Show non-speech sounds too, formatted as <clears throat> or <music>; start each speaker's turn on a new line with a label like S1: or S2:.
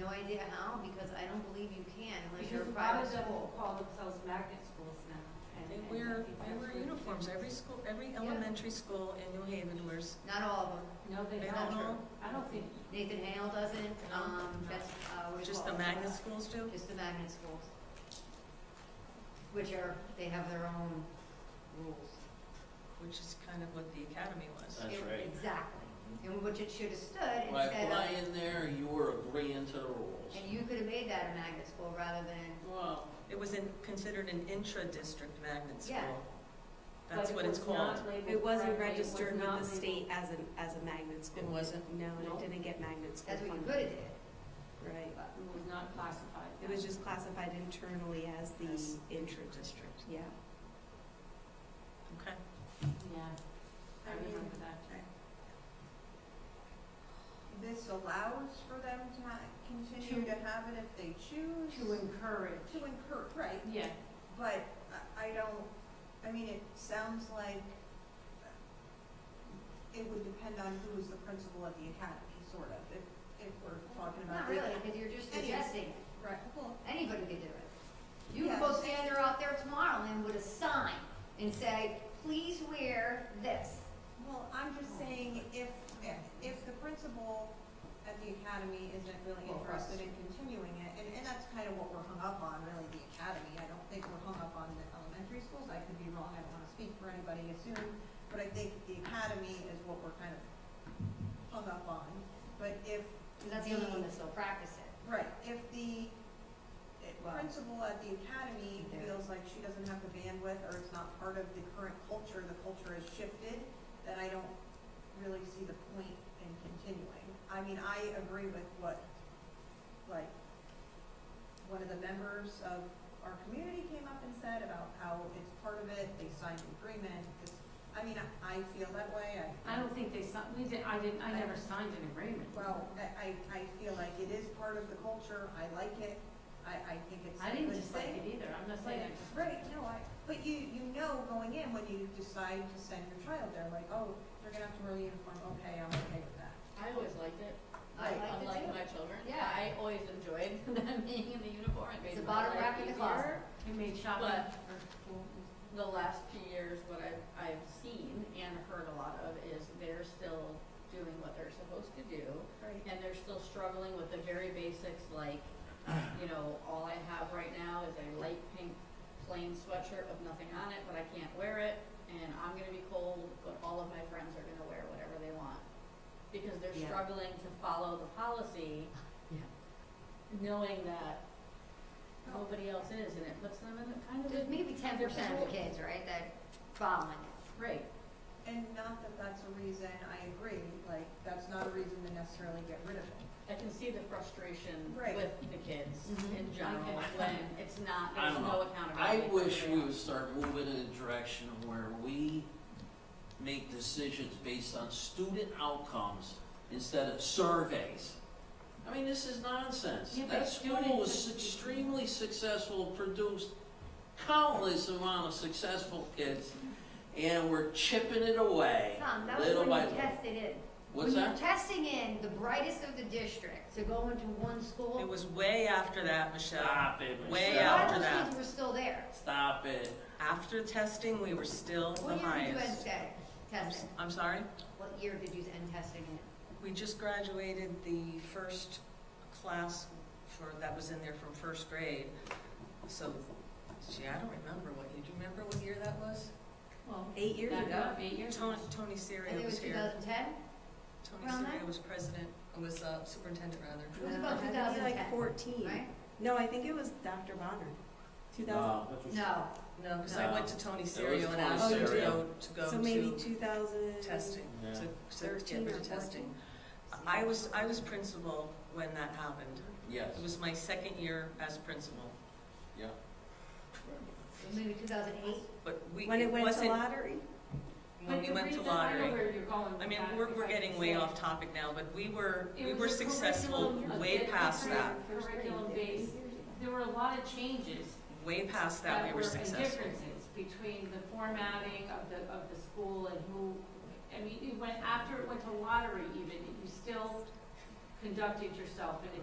S1: no idea how, because I don't believe you can unless you're a
S2: Because a lot
S1: private
S2: of them will
S1: school.
S2: call themselves magnet schools now. and-
S3: They
S2: and I
S3: wear,
S2: think
S3: they
S2: that's
S3: wear
S2: what-
S3: uniforms, every school, every elementary school in New Haven wears,
S1: Not all of them.
S2: No, they
S3: they
S2: don't.
S3: don't know,
S2: I don't think,
S1: Nathan Hale doesn't,
S3: No,
S1: um,
S3: no.
S1: that's, uh, what do you
S3: just the
S1: call it?
S3: magnet schools do?
S1: Just the magnet schools. Which are, they have their own rules.
S3: Which is kind of what the academy was.
S4: That's
S1: It-
S4: right. Mm-hmm.
S1: Exactly. And which it should have stood
S4: By
S1: instead of,
S4: flying there, you were agreeing to the rules.
S1: and you could have made that a magnet school rather than,
S4: Well,
S3: It was in, considered an intra-district magnet school.
S1: Yeah.
S3: That's
S2: But
S3: what
S2: it
S3: it's
S2: was
S3: called.
S2: not labeled
S5: It wasn't
S2: correctly, it was
S5: registered with
S2: not
S5: the
S2: labeled-
S5: state as an, as a magnet school.
S3: It wasn't?
S5: No,
S2: No.
S5: and it didn't get magnet school
S1: that's what you
S5: funding.
S1: could have did.
S5: Right.
S1: But
S2: uh, It was not classified.
S5: It was just classified internally as the
S3: As
S5: intra-district,
S3: District,
S5: yeah.
S3: okay.
S2: Yeah, I
S6: I mean-
S2: remember that.
S6: This allows for them to ha- continue
S2: To-
S6: to have it if they choose.
S2: To encourage.
S6: To incur, right,
S2: Yeah,
S6: but I, I don't, I mean, it sounds like it would depend on who is the principal at the academy, sort of, if, if we're talking
S1: not
S6: about. the-
S1: really, because you're just
S6: Anyway.
S1: suggesting,
S6: Right, well,
S1: anybody could do it. You could
S6: Yeah.
S1: go stand there out there tomorrow and with a sign and say, please wear this.
S6: well, I'm just saying if, if the principal at the academy isn't really
S2: Well, us.
S6: interested in continuing it, and, and that's kind of what we're hung up on, really, the academy. I don't think we're hung up on the elementary schools. I could be wrong. I don't want to speak for anybody assume, but I think the academy is what we're kind of hung up on. But if
S1: And that's the only one that still practices it.
S6: Right, if the
S1: Well-
S6: principal at the academy
S1: Yeah.
S6: feels like she doesn't have the bandwidth, or it's not part of the current culture, the culture has shifted, then I don't really see the point in continuing. I mean, I agree with what, like, one of the members of our community came up and said about how it's part of it, they signed an agreement, 'cause, I mean, I, I feel that way, I.
S2: I don't think they, signed- we did, I didn't, I never signed an agreement.
S6: Well, I, I, I feel like it is part of the culture, I like it, I, I think it's
S2: I
S6: a
S2: didn't
S6: good
S2: dislike
S6: thing.
S2: it either, I'm not saying I just.
S6: Right, no, I, but you, you know going in when you decide to send your child there, like, oh, they're gonna have to wear a uniform, okay, I'm okay with that.
S7: I always liked it.
S1: I liked it
S7: Unlike
S1: too.
S7: my children.
S1: Yeah.
S7: I always enjoyed <laughs> them being in the uniform. It made
S1: It's a
S7: my
S1: bottom
S7: life
S1: rack in the
S7: easier.
S1: closet.
S2: You made shopping
S7: But-
S2: for school.
S7: The last few years, what I've, I've seen and heard a lot of is they're still doing what they're supposed to do.
S6: Right.
S7: And they're still struggling with the very basics
S4: <clears throat>
S7: like, you know, all I have right now is a light pink plain sweatshirt with nothing on it, but I can't wear it. And I'm gonna be cold, but all of my friends are gonna wear whatever they want. Because they're
S2: Yeah.
S7: struggling to follow the policy.
S2: <laughs> Yeah.
S7: knowing that nobody else is, and it puts them in a kind of.
S1: There's maybe ten percent of the kids, right, that following it.
S7: Right,
S6: And not that that's a reason, I agree, like, that's not a reason to necessarily get rid of it.
S7: I can see the frustration
S6: Right.
S7: with the kids
S2: Mm-hmm.
S1: Mhm.
S7: in general, when it's not,
S4: I
S7: there's
S4: don't
S7: no
S4: know. I
S7: accountability. for
S4: wish we
S7: everyone.
S4: would start moving in a direction where we make decisions based on student outcomes instead of surveys. I mean, this is nonsense.
S2: Yeah, but
S4: That school was
S2: students-
S4: extremely successful, produced countless amount of successful kids, and we're chipping it away,
S1: Tom, that was
S4: little
S1: when
S4: by
S1: you
S4: little.
S1: tested in.
S4: What's
S1: When
S4: that?
S1: you're testing in the brightest of the district to go into one
S3: It
S1: school,
S3: was way after that, Michelle.
S4: Stop it,
S1: a
S3: way
S4: Michelle.
S1: lot
S3: after
S1: of those
S3: that.
S1: kids were still there.
S4: Stop it.
S3: After testing, we were still the
S1: What year did you end
S3: highest.
S1: sta- testing?
S3: I'm sorry?
S1: What year did you end testing in?
S3: We just graduated the first class for, that was in there from first grade. So, gee, I don't remember what, you do you remember what year that was?
S2: Well,
S5: Eight years
S2: back
S5: ago,
S2: up eight years.
S3: Tony, Tony
S1: I think
S3: Serio
S1: it was
S3: was
S1: two
S3: here.
S1: thousand ten?
S3: Tony
S1: around
S3: Serio
S1: there?
S3: was president, was uh, superintendent rather.
S1: It was about
S5: I
S1: two
S5: think
S1: thousand
S5: like
S1: ten,
S5: fourteen.
S1: right?
S5: No, I think it was Dr. Bonner. Two thousand,
S4: No.
S1: No,
S3: No, because I
S4: No.
S3: went to Tony
S4: was
S3: Serio and
S4: Tony
S3: asked him to
S4: Serio.
S3: go, to go
S5: so maybe
S3: to
S5: two thousand.
S3: testing,
S4: Yeah.
S3: to, to get
S5: 13
S3: rid
S5: or
S3: of testing.
S5: 14.
S3: I was, I was principal when that happened.
S4: Yes,
S3: It was my second year as principal,
S4: yeah.
S1: maybe two thousand eight.
S3: but we,
S5: When it went to
S3: wasn't,
S5: lottery?
S3: when we went
S2: But the
S3: to lottery.
S2: reason, I know where you're going with
S3: I mean,
S2: that,
S3: we're,
S2: because
S3: we're
S2: I can
S3: getting way
S2: say-
S3: off topic now, but we were,
S2: It
S3: we
S2: was
S3: were
S2: a
S3: successful
S2: curriculum, a
S3: way
S2: bit
S3: past that,
S2: different Curriculum based, there were a lot of changes
S3: way past that,
S2: that
S3: we
S2: were
S3: were
S2: and
S3: successful.
S2: differences between the formatting of the, of the school and who, I mean, it went, after it went to lottery even, you still conducted yourself in a